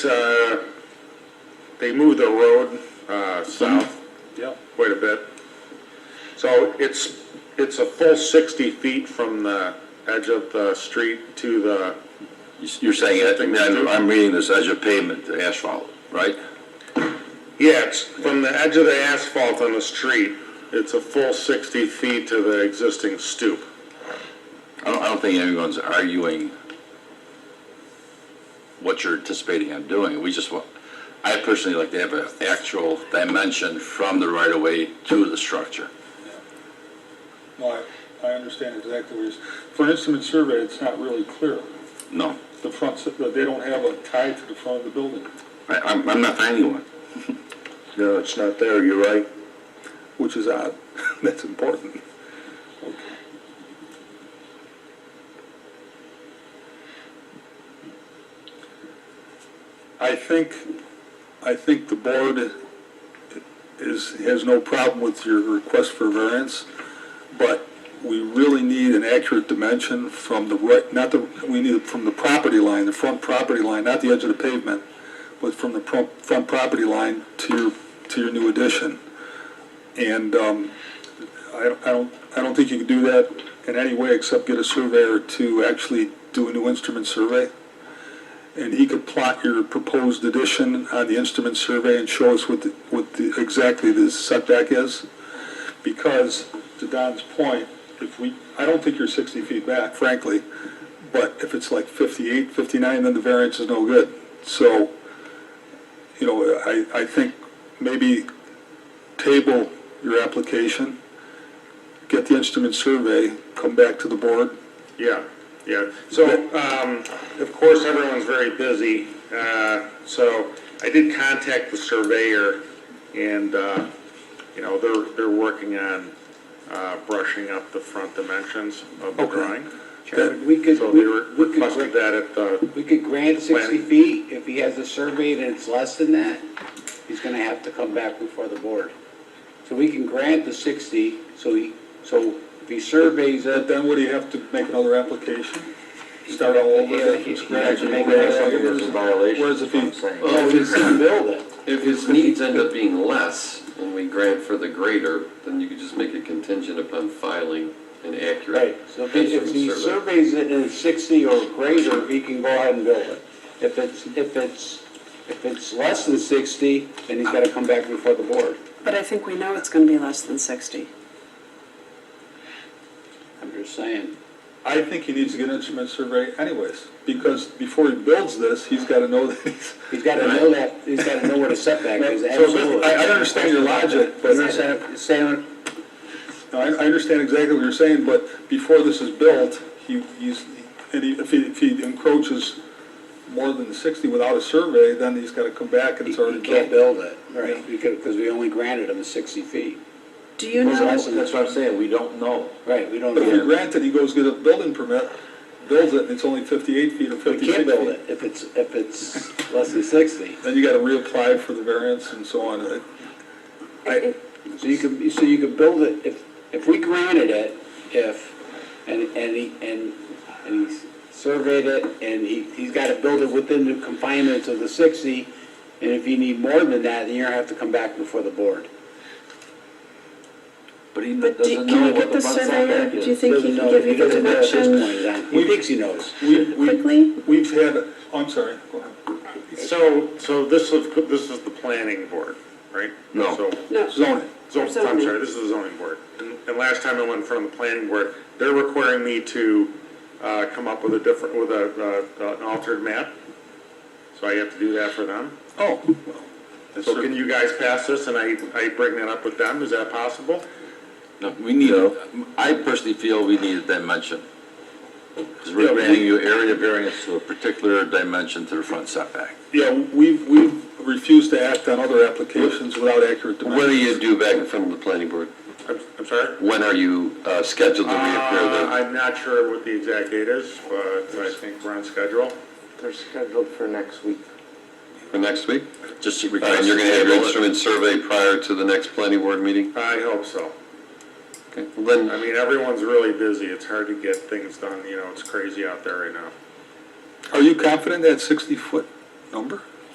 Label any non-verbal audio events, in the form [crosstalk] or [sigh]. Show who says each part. Speaker 1: Uh, they moved the road, uh, south
Speaker 2: Yep.
Speaker 1: quite a bit. So it's, it's a full sixty feet from the edge of the street to the,
Speaker 3: You're saying, I mean, I'm- I'm reading this as a pavement to asphalt, right?
Speaker 1: yeah, it's from the edge of the asphalt on the street. It's a full sixty feet to the existing stoop.
Speaker 3: I don't, I don't think anyone's arguing what you're anticipating on doing. We just want, I personally like to have an actual dimension from the right-of-way to the structure.
Speaker 2: No, I, I understand exactly what you're, s- for an instrument survey, it's not really clear.
Speaker 3: No,
Speaker 2: The front, s- they don't have a tie to the front of the building,
Speaker 3: I, I'm, I'm not finding one.
Speaker 4: No, it's not there, you're right,
Speaker 2: which is odd.
Speaker 4: [laughs] that's important.
Speaker 2: I think, I think the board is, has no problem with your request for variance, but we really need an accurate dimension from the right, not the, we need it from the property line, the front property line, not the edge of the pavement, but from the pro- front property line to your, to your new addition. And, um, I, I don't, I don't think you can do that in any way except get a surveyor to actually do a new instrument survey and he could plot your proposed addition on the instrument survey and show us what, the- what the- exactly the setback is. Because, to Don's point, if we, I don't think you're 60 feet back, frankly, but if it's like 58, 59, then the variance is no good. So, you know, I, I think maybe table your application, get the instrument survey, come back to the board.
Speaker 1: Yeah, yeah. So, um, of course, everyone's very busy. Uh, so I did contact the surveyor and, uh, you know, they're, they're working on, uh, brushing up the front dimensions of the
Speaker 2: Okay.
Speaker 1: drawing.
Speaker 5: Chairman, we could,
Speaker 1: So
Speaker 5: we
Speaker 1: they
Speaker 5: we
Speaker 1: re-
Speaker 5: could,
Speaker 1: requested
Speaker 5: gra-
Speaker 1: that at the,
Speaker 5: we could grant sixty
Speaker 1: Planning.
Speaker 5: feet, if he has a survey and it's less than that, he's gonna have to come back before the board. So we can grant the sixty, so he, so if he surveys
Speaker 2: But
Speaker 5: it,
Speaker 2: then would he have to make another application? Start all over
Speaker 5: Yeah,
Speaker 2: again
Speaker 5: he-
Speaker 2: from
Speaker 5: he
Speaker 2: scratch?
Speaker 5: has to make another-
Speaker 2: Whereas- Whereas if he,
Speaker 3: Uh,
Speaker 6: Well, if his,
Speaker 5: build it.
Speaker 6: if his needs end up being less, and we grant for the greater, then you could just make it contingent upon filing an
Speaker 5: Right,
Speaker 6: accurate
Speaker 5: so if he- if he
Speaker 6: instrument survey.
Speaker 5: surveys it and it's sixty or greater, he can go ahead and build it. If it's, if it's, if it's less than sixty, then he's gotta come back before the board.
Speaker 7: But I think we know it's gonna be less than sixty.
Speaker 5: I'm just saying.
Speaker 2: I think he needs to get an instrument survey anyways, because before he builds this, he's gotta know that he's.
Speaker 5: He's gotta know that, he's gotta know where the setback is,
Speaker 2: So this-
Speaker 5: absolutely.
Speaker 2: I, I understand your logic, but,
Speaker 5: You're saying- saying,
Speaker 2: no, I, I understand exactly what you're saying, but before this is built, he, he's, and he, if he, if he encroaches more than sixty without a survey, then he's gotta come back and
Speaker 5: You
Speaker 2: it's already built.
Speaker 5: can't build it,
Speaker 2: Yeah.
Speaker 5: right, because, because we only granted him sixty feet.
Speaker 7: Do you
Speaker 5: Those
Speaker 7: know,
Speaker 5: less than-
Speaker 4: That's what I'm saying, we don't know.
Speaker 5: Right, we don't,
Speaker 2: But if you
Speaker 5: know.
Speaker 2: grant it, he goes get a building permit, builds it, and it's only fifty-eight feet or
Speaker 5: we
Speaker 2: fifty-six
Speaker 5: can't
Speaker 2: feet.
Speaker 5: build it if it's, if it's less than sixty.
Speaker 2: Then you gotta reapply for the variance and so on. It- I-
Speaker 5: So you could, so you could build it, if, if we granted it, if, and, and he, and, and he surveyed it, and he, he's gotta build it within the confinements of the sixty, and if you need more than that, then you're gonna have to come back before the board.
Speaker 3: But he
Speaker 7: but do,
Speaker 3: doesn't
Speaker 7: can
Speaker 3: know
Speaker 7: you
Speaker 3: what
Speaker 7: get
Speaker 3: the
Speaker 7: the
Speaker 3: front
Speaker 7: surveyor,
Speaker 3: setback
Speaker 7: do you
Speaker 3: is.
Speaker 7: think he
Speaker 5: Doesn't
Speaker 7: can
Speaker 5: know-
Speaker 7: give you the
Speaker 5: doesn't know at this
Speaker 7: dimension?
Speaker 5: point, is that- He thinks he knows.
Speaker 2: we- we-
Speaker 7: Quickly?
Speaker 2: We've had, oh, I'm sorry, go ahead.
Speaker 1: so, so this is, this is the planning board, right?
Speaker 3: No.
Speaker 1: So
Speaker 7: No,
Speaker 2: Zoning.
Speaker 1: Zone, I'm
Speaker 7: Zoning.
Speaker 1: sorry, this is the zoning board. And, and last time I went in front of the planning board, they're requiring me to, uh, come up with a different, with a, uh, an altered map. So I have to do that for them.
Speaker 2: Oh,
Speaker 1: So can you guys pass this and I, I bring that up with them? Is that possible?
Speaker 3: No, we need, I personally feel we need a dimension. Because
Speaker 2: Yeah,
Speaker 3: we're
Speaker 2: we-
Speaker 3: granting you area variance to a particular dimension to the front setback.
Speaker 2: yeah, we've, we've refused to act on other applications without accurate
Speaker 6: When are
Speaker 2: dimensions.
Speaker 6: you due back in front of the planning board?
Speaker 1: I'm, I'm sorry?
Speaker 3: When are you uh, scheduled to reappear
Speaker 1: Uh,
Speaker 3: there?
Speaker 1: I'm not sure what the exact date is, but I think we're on schedule.
Speaker 8: They're scheduled for next week.
Speaker 6: For next week?
Speaker 3: Just
Speaker 6: All right,
Speaker 3: request.
Speaker 6: And you're gonna have
Speaker 3: table
Speaker 6: your
Speaker 3: it.
Speaker 6: instrument survey prior to the next planning board meeting?
Speaker 1: I hope so.
Speaker 6: Okay. Then,
Speaker 1: I mean, everyone's really busy. It's hard to get things done, you know, it's crazy out there right now.
Speaker 2: Are you confident that sixty-foot number?